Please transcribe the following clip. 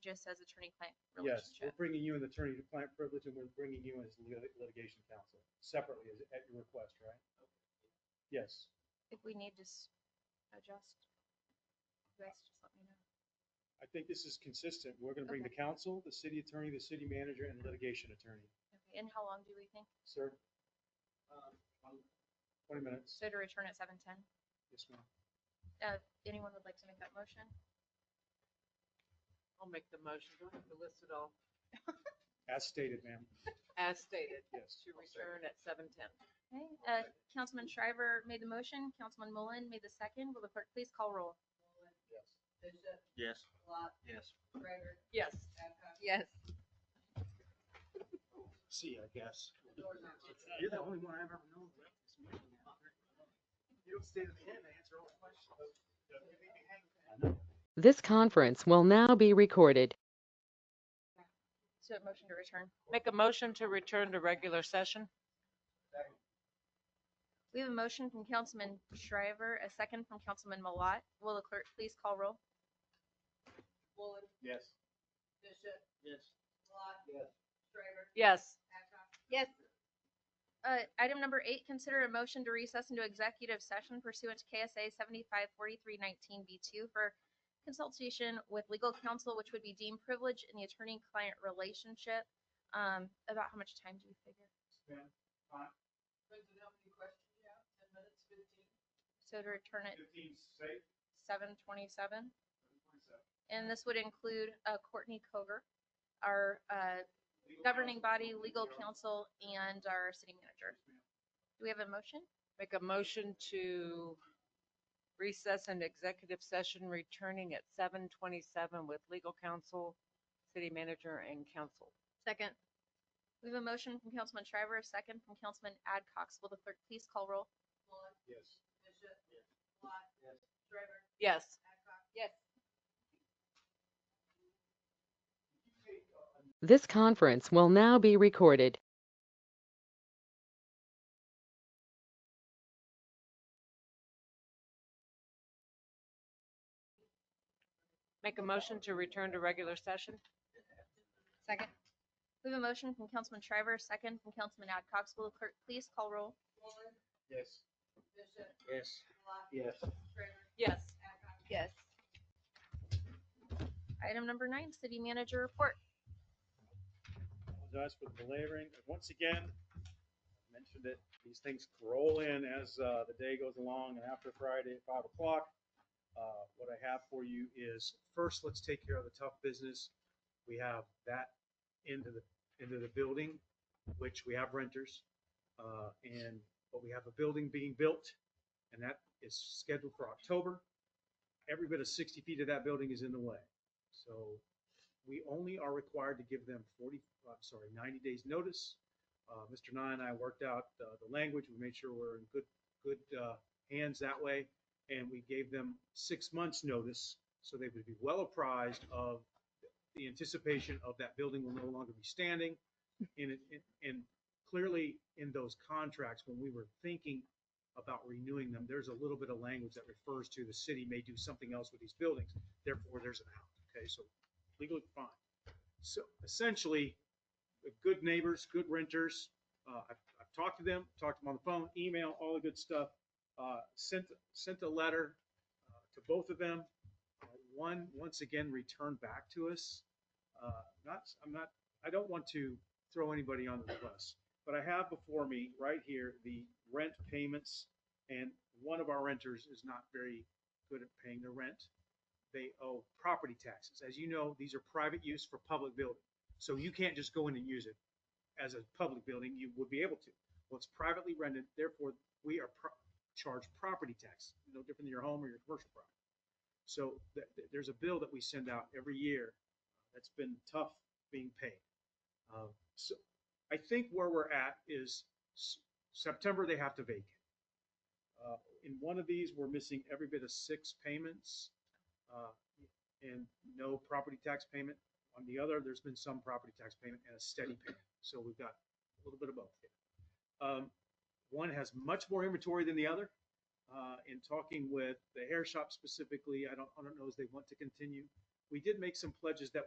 just as attorney-client Yes, relationship. we're bringing you an attorney-client privilege and we're bringing you as lit- litigation counsel separately as- at your request, right? Yes. If we need to s- adjust, you guys just let me know. I think this is consistent. We're going to bring the Okay. counsel, the city attorney, the city manager, and litigation attorney. Okay, and how long do we think? Sir, Um, I'm- 20 minutes. So to return at seven ten? Yes, ma'am. Uh, anyone would like to make that motion? I'll make the motion. Do I have to list it all? As stated, ma'am. As stated, Yes. to return at seven ten. Okay, uh, Councilman Shriver made the motion, Councilman Mullen made the second. Will the clerk please call roll? Yes. Bishop, Yes. Lot, Yes. Gregor, Yes. Babcock, Yes. See, I guess. doors aren't open. You're the only one I've ever known. that left this meeting after. You don't stay to the end and answer all the questions. This conference will now be recorded. So a motion to return. Make a motion to return to regular session? We have a motion from Councilman Shriver, a second from Councilman Malat. Will the clerk please call roll? Woolen, Yes. Bishop, Yes. Lot. Yes. Gregor, Yes. Babcock. Yes. Uh, item number eight, consider a motion to recess into executive session pursuant to KSA seventy-five forty-three nineteen B two for consultation with legal counsel, which would be deemed privileged in the attorney-client relationship. Um, about how much time do you figure? Ma'am, Brandon, how many questions you have? Ten minutes, fifteen? So to return at 15 safe, seven twenty-seven? 27. And this would include uh, Courtney Koger, our uh, governing body, legal counsel, and our city manager. Do we have a motion? Make a motion to recess an executive session returning at seven twenty-seven with legal counsel, city manager and council. Second. We have a motion from Councilman Shriver, a second from Councilman Adcox. Will the clerk please call roll? Woolen, Yes. Bishop, Lot. Yes. Gregor, Yes. Babcock. Yes. This conference will now be recorded. Make a motion to return to regular session? Second. We have a motion from Councilman Shriver, a second from Councilman Adcox. Will the clerk please call roll? Woolen, Yes. Bishop, Yes. Lot, Yes. Gregor, Yes. Babcock. Yes. Item number nine, city manager report. apologize for the belaboring. And Once again, I mentioned it, these things roll in as uh, the day goes along and after Friday at five o'clock. uh, What I have for you is first, let's take care of the tough business. We have that into the, into the building, which we have renters. uh, And, but we have a building being built and that is scheduled for October. Every bit of sixty feet of that building is in the way. So we only are required to give them 40, I'm sorry, 90 days notice. Uh, Mr. Nye and I worked out uh, the language, we made sure we're in good, good uh, hands that way. And we gave them six months' notice, so they would be well apprised of the anticipation of that building will no longer be standing. And, it- it- and clearly, in those contracts, when we were thinking about renewing them, there's a little bit of language that refers to the city may do something else with these buildings, therefore there's an out, okay? So legally fine. So essentially, the good neighbors, good renters, uh, I've, I've talked to them, talked to them on the phone, email, all the good stuff. Uh, sent, sent a letter uh, to both of them. Uh, One, once again, returned back to us. Uh, not, I'm not, I don't want to throw anybody under the bus, but I have before me right here the rent payments. And one of our renters is not very good at paying their rent they owe property taxes. As you know, these are private use for public building. So you can't just go in and use it as a public building. You would be able to. Well, it's privately rented, therefore we are pro- charged property tax, no different than your home or your commercial property. So th- th- there's a bill that we send out every year uh, that's been tough being paid. Uh, So I think where we're at is s- September, they have to vacate. Uh, In one of these, we're missing every bit of six payments uh, and no property tax payment. On the other, there's been some property tax payment and a steady payment. So we've got a little bit of both. here. Um, One has much more inventory than the other. Uh, In talking with the hair shop specifically, I don't, I don't know if they want to continue. We did make some pledges that